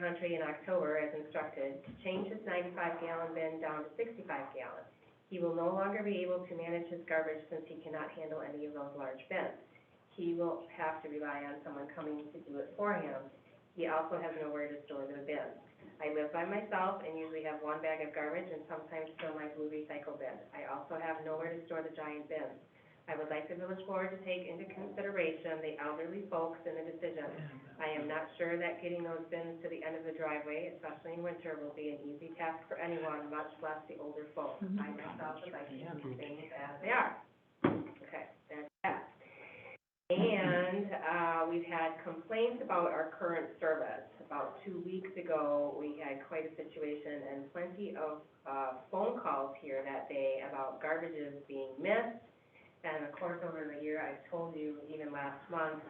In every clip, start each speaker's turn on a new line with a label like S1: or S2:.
S1: Huntry in October as instructed to change his ninety-five gallon bin down to sixty-five gallon. He will no longer be able to manage his garbage since he cannot handle any of those large bins. He will have to rely on someone coming to do it for him. He also has nowhere to store the bins. I live by myself and usually have one bag of garbage and sometimes fill my blue recycle bin. I also have nowhere to store the giant bins. I would like the village board to take into consideration the elderly folks in the decision. I am not sure that getting those bins to the end of the driveway, especially in winter, will be an easy task for anyone, much less the older folks. I myself would like to keep things as they are. Okay, that's that. And, uh, we've had complaints about our current service. About two weeks ago, we had quite a situation and plenty of, uh, phone calls here that day about garbages being missed. And of course, over the year, I told you even last month,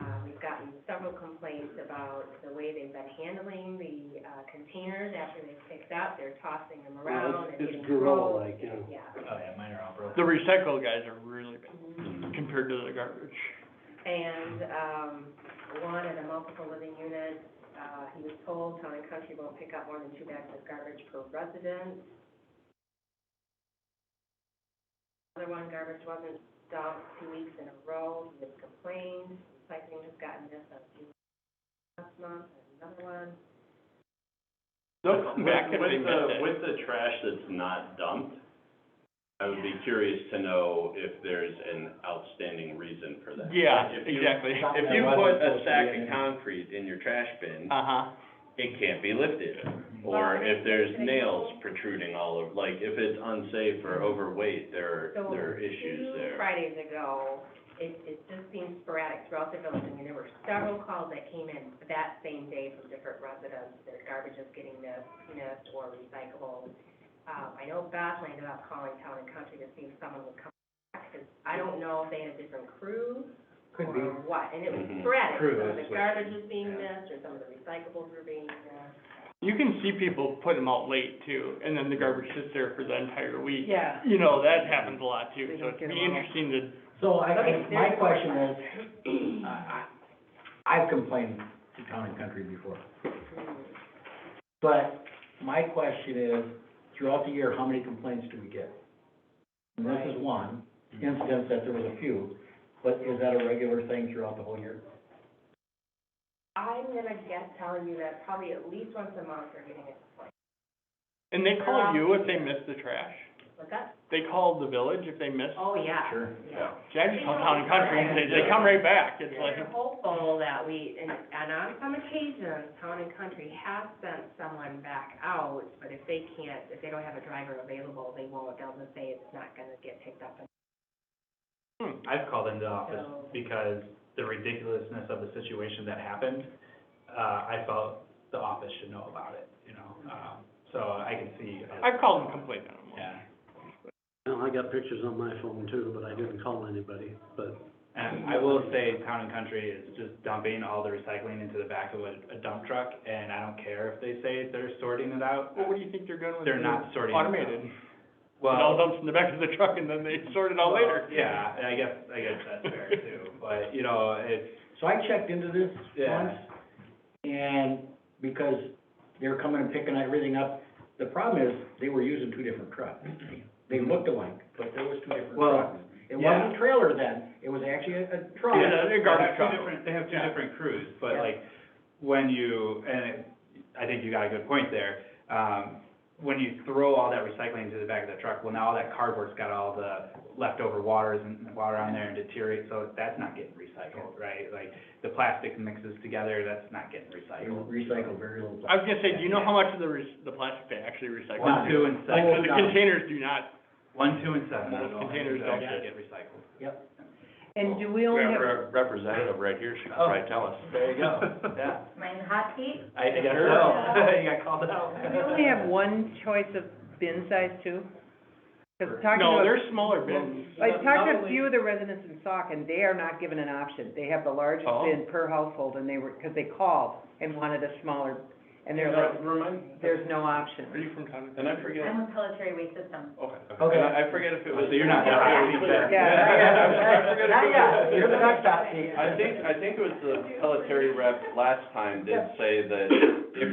S1: uh, we've gotten several complaints about the way they've been handling the, uh, containers after they've picked up. They're tossing them around and
S2: It's
S1: getting rolled.
S2: gorilla-like, you know.
S1: Yeah.
S3: Oh, yeah, mine are all
S4: The
S3: broken.
S4: recycle guys are really bad
S1: Mhm.
S4: compared to the garbage.
S1: And, um, one in a multiple living unit, uh, he was told Town and Country won't pick up more than two bags of garbage per resident. Another one, garbage wasn't dumped two weeks in a row, he has complained, recycling has gotten this a few last month, and another one.
S4: They'll come back if they
S5: With the,
S4: miss it.
S5: with the trash that's not dumped, I would be curious to know if there's an outstanding reason for that.
S4: Yeah,
S5: If you-
S4: exactly.
S5: If you put a sack of concrete in your trash bin,
S4: Uh-huh.
S5: it can't be lifted. Or if there's nails protruding all over, like, if it's unsafe or overweight, there,
S1: So,
S5: there are issues
S1: Two
S5: there.
S1: Fridays ago, it, it just seemed sporadic throughout the village, I mean, there were several calls that came in that same day from different residents, their garbage is getting missed, missed or recyclable. Um, I know Beth ended up calling Town and Country to see if someone would come back, 'cause I don't know if they had different crews
S2: Could be.
S1: or what, and it was
S5: Mhm.
S1: sporadic,
S2: Crew,
S1: some of
S2: that's
S1: the
S2: what-
S1: garbage was being
S2: yeah.
S1: missed, or some of the recyclables were being missed.
S4: You can see people put them out late too, and then the garbage sits there for the entire week.
S6: Yeah.
S4: You know, that happens a lot too,
S6: They
S4: so
S6: don't
S4: it'd be
S6: get 'em out.
S4: interesting to,
S7: So I,
S1: Okay,
S7: I- my
S1: there's a
S7: question is,
S1: question.
S7: I, I, I've complained to Town and Country before,
S2: uh,
S7: but my question is, throughout the year, how many complaints do we get? And this is one,
S3: Mm-hmm.
S7: instance that there was a few, but is that a regular thing throughout the whole year?
S1: I'm gonna guess telling you that probably at least once a month we're getting it.
S4: and they
S1: They're all-
S4: call
S6: Um,
S4: you if they miss the trash.
S1: What's that?
S4: They call the village if they miss.
S1: Oh, yeah.
S7: Sure.
S1: Yeah.
S4: See, I just call town and country, and they, they come right back. It's like,
S1: We're hopeful that we, and, and on some occasions, town and country have sent someone back out, but if they can't, if they don't have a driver available, they won't, they'll just say it's not gonna get picked up.
S4: hmm,
S3: I've called into office
S1: So-
S3: because the ridiculousness of the situation that happened, uh, I felt the office should know about it, you know? Um, so I can see. uh,
S4: I've called and complained on them.
S3: Yeah,
S2: Well, I got pictures on my phone too, but I didn't call anybody, but
S3: and I will say Town and Country is just dumping all the recycling into the back of a, a dump truck, and I don't care if they say they're sorting it out.
S4: Well, what do you think they're doing with?
S3: They're
S4: the
S3: not sorting it out.
S4: Automated. It all
S3: Well,
S4: dumps in the back of the truck and then they sort it out later.
S3: yeah, I guess, I guess that's fair too, but, you know, it's,
S7: So I checked into this
S3: Yeah.
S7: once, and because they were coming and picking everything up, the problem is, they were using two different trucks. They looked alike, but there was two different
S3: Well,
S7: trucks. It wasn't a trailer then, it was actually a, a truck.
S3: Yeah,
S4: they're garbage
S3: They have
S4: truck.
S3: two different, they have two
S7: Yeah.
S3: different crews, but
S7: Yeah.
S3: like, when you, and it- I think you got a good point there. Um, when you throw all that recycling into the back of the truck, well, now all that cardboard's got all the leftover waters and water on there and deteriorate, so that's not getting recycled, right? Like, the plastic mixes together, that's not getting
S7: They
S3: recycled.
S7: recycled very little.
S4: I was gonna say, do you know how much of the re- the plastic they actually recycle?
S3: One, two, and
S7: Oh,
S4: Because
S3: seven,
S4: the
S7: no.
S4: containers do not,
S3: one, two, and seven.
S4: Most containers don't
S3: actually
S4: get-
S3: Get recycled.
S6: And do we only have, Oh.
S5: representative right here, she could
S3: probably
S5: tell us.
S3: There you go, yeah.
S1: Mine hot seat?
S3: I think I
S4: Sure.
S3: know. you got called out.
S6: we only have one choice of bin size too? Cause talking
S4: no,
S6: to,
S4: they're smaller bins.
S6: I talked to a
S3: Not
S6: few of the residents in Sauk and they are not given an option. They have the largest
S4: Oh.
S6: bin per household and they were, cause they called and wanted a smaller, and they're like,
S5: Remind,
S6: there's no option.
S4: Are you from town?
S5: and I forget,
S1: with Pelletary Waste Systems.
S5: okay,
S7: Okay.
S5: and I I forget if it was.
S3: So you're not that
S5: I
S3: far deep there.
S7: Yeah.
S5: I forget if it
S7: Not
S5: was-
S7: yet, you're the next hot seat.
S5: I think, I think it was the military rep last time did say that if